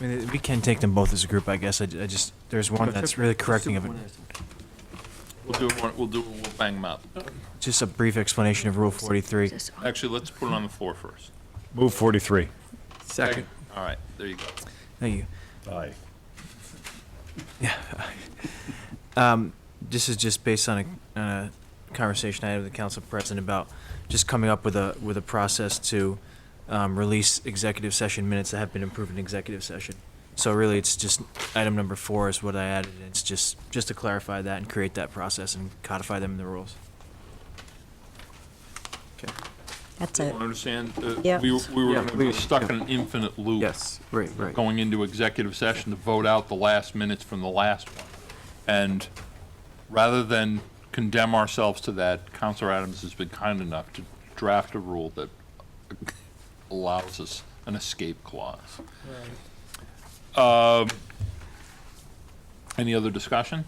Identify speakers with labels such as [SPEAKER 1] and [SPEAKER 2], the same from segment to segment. [SPEAKER 1] I mean, we can take them both as a group, I guess. I, I just, there's one that's really correcting of it.
[SPEAKER 2] We'll do it, one- we'll do, it- we'll bang them up.
[SPEAKER 1] Just a brief explanation of Rule 43.
[SPEAKER 2] Actually, let's put it on the floor first.
[SPEAKER 3] Move 43.
[SPEAKER 4] Second.
[SPEAKER 2] All right, there you go.
[SPEAKER 1] Thank you.
[SPEAKER 3] Aye.
[SPEAKER 1] Um, this is just based on a, on a conversation I had with the council president about just coming up with a, with a process to, um, release executive session minutes that have been approved in executive session. So really, it's just, item number four is what I added. It's just, just to clarify that and create that process and codify them in the rules.
[SPEAKER 5] That's
[SPEAKER 2] You
[SPEAKER 5] it.
[SPEAKER 2] Understand? uh,
[SPEAKER 5] Yeah.
[SPEAKER 2] We were- we
[SPEAKER 4] Yeah,
[SPEAKER 2] were we were
[SPEAKER 4] please.
[SPEAKER 2] stuck in an infinite loop.
[SPEAKER 4] Yes, right, right.
[SPEAKER 2] Going into executive session to vote out the last minutes from the last one. And rather than condemn ourselves to that, Counselor Adams has been kind enough to draft a rule that allows us an escape clause. Um, Any other discussion?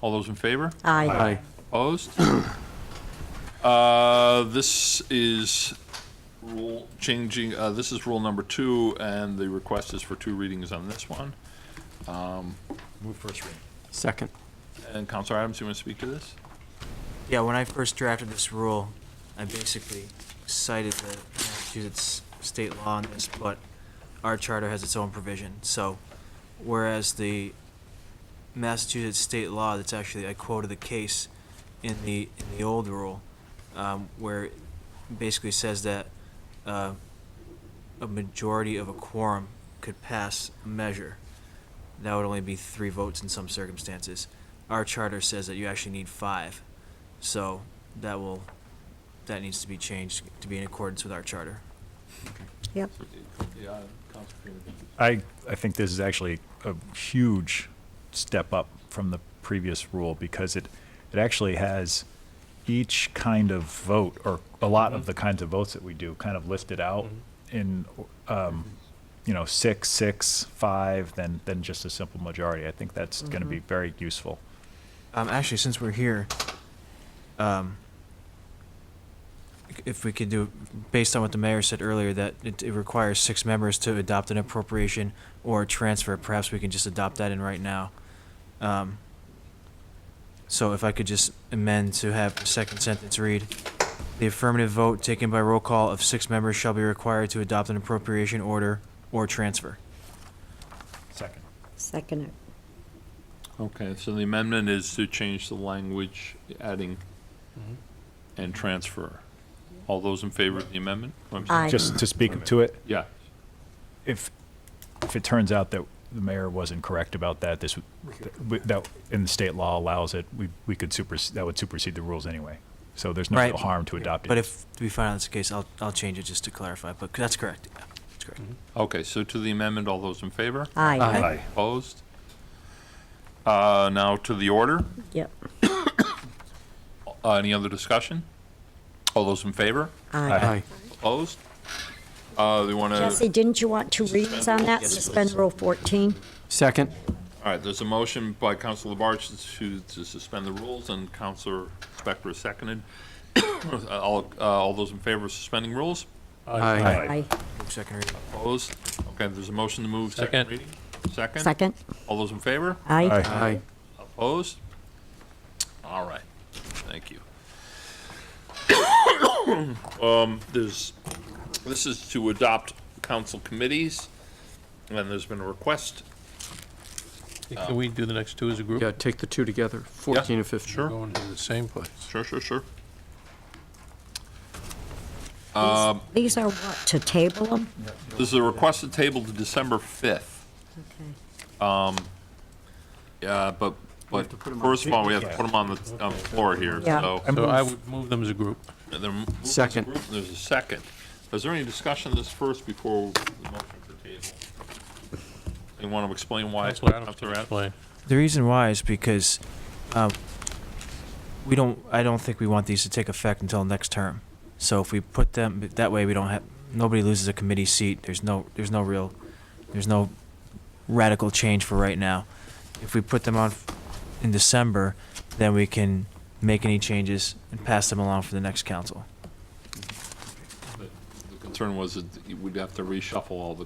[SPEAKER 2] All those in favor?
[SPEAKER 5] Aye.
[SPEAKER 4] Aye.
[SPEAKER 2] Opposed? Uh, This is rule changing, uh, this is rule number two, and the request is for two readings on this one.
[SPEAKER 3] Move first reading.
[SPEAKER 4] Second.
[SPEAKER 2] And Counselor Adams, you want to speak to this?
[SPEAKER 1] Yeah, when I first drafted this rule, I basically cited the Massachusetts state law on this, but our charter has its own provision. So whereas the Massachusetts state law, that's actually, I quoted the case in the, in the old rule, um, where it basically says that, uh, a majority of a quorum could pass a measure. That would only be three votes in some circumstances. Our charter says that you actually need five. So that will, that needs to be changed to be in accordance with our charter.
[SPEAKER 5] Yep.
[SPEAKER 2] Yeah, Counselor Freeman.
[SPEAKER 3] I, I think this is actually a huge step up from the previous rule because it, it actually has each kind of vote or a lot of the kinds of votes that we do kind of listed out in, um, you know, six, six, five, then, then just a simple majority. I think that's going to be very useful.
[SPEAKER 1] Um, actually, since we're here, um, if we could do, based on what the mayor said earlier, that it, it requires six members to adopt an appropriation or a transfer, perhaps we can just adopt that in right now. Um, so if I could just amend to have the second sentence read, the affirmative vote taken by roll call of six members shall be required to adopt an appropriation order or transfer.
[SPEAKER 3] Second.
[SPEAKER 5] Second it.
[SPEAKER 2] Okay, so the amendment is to change the language, adding and transfer. All those in favor of the amendment? Oh, I'm sorry.
[SPEAKER 5] Aye.
[SPEAKER 3] Just to speak to it,
[SPEAKER 2] Yeah,
[SPEAKER 3] if, if it turns out that the mayor wasn't correct about that, this, would- that, and the state law allows it, we, we could supersede, that would supersede the rules anyway. So there's no
[SPEAKER 1] Right.
[SPEAKER 3] real harm to adopt it.
[SPEAKER 1] But if we find out it's the case, I'll, I'll change it just to clarify, but that's correct, yeah, that's correct.
[SPEAKER 2] okay, so to the amendment, all those in favor?
[SPEAKER 5] Aye.
[SPEAKER 3] Aye.
[SPEAKER 2] Opposed? Uh, Now to the order.
[SPEAKER 5] Yep.
[SPEAKER 2] Uh, Any other discussion? All those in favor?
[SPEAKER 3] Aye.
[SPEAKER 2] Opposed? Uh, They want to,
[SPEAKER 5] Jesse, didn't you want two readings on that? Suspend Rule 14?
[SPEAKER 4] Second.
[SPEAKER 2] all right, there's a motion by Counselor Labarge to to suspend the rules, and Counselor Spector seconded. All uh, all those in favor of suspending rules?
[SPEAKER 4] Aye.
[SPEAKER 5] Aye.
[SPEAKER 1] Move Second reading.
[SPEAKER 2] Opposed? Okay, there's a motion to move second reading. Second?
[SPEAKER 5] Second?
[SPEAKER 2] All those in favor?
[SPEAKER 5] Aye.
[SPEAKER 3] Aye.
[SPEAKER 4] Aye.
[SPEAKER 2] Opposed? All right, thank you. Um, there's, this is to adopt council committees, and there's been a request.
[SPEAKER 6] Can we do the next two as a group?
[SPEAKER 4] Yeah, take the two together, 14 and 15.
[SPEAKER 6] We're Going to the same place.
[SPEAKER 2] Sure, sure, sure.
[SPEAKER 5] These are what, to table them?
[SPEAKER 2] This is a request to table to December fifth.
[SPEAKER 5] Okay.
[SPEAKER 2] Yeah, but, but
[SPEAKER 4] to put 'em on-
[SPEAKER 2] first of all, we have to put them on the, on the floor here,
[SPEAKER 5] Yeah.
[SPEAKER 2] so.
[SPEAKER 6] So I would move them as a group.
[SPEAKER 2] And they're moved as a
[SPEAKER 4] Second.
[SPEAKER 2] group, and There's a second. Is there any discussion of this first before the motion for table? You want to explain why?
[SPEAKER 6] Counselor Adams
[SPEAKER 2] Counselor
[SPEAKER 6] can
[SPEAKER 2] Adams?
[SPEAKER 6] explain.
[SPEAKER 1] The reason why is because um, we don't. I don't think we want these to take effect until next term. So if we put them that way, we don't have nobody loses a committee seat. There's no. There's no real. There's no radical change for right now. If we put them on in December, then we can make any changes and pass them along for the next council.
[SPEAKER 2] The concern was that we'd have to reshuffle all the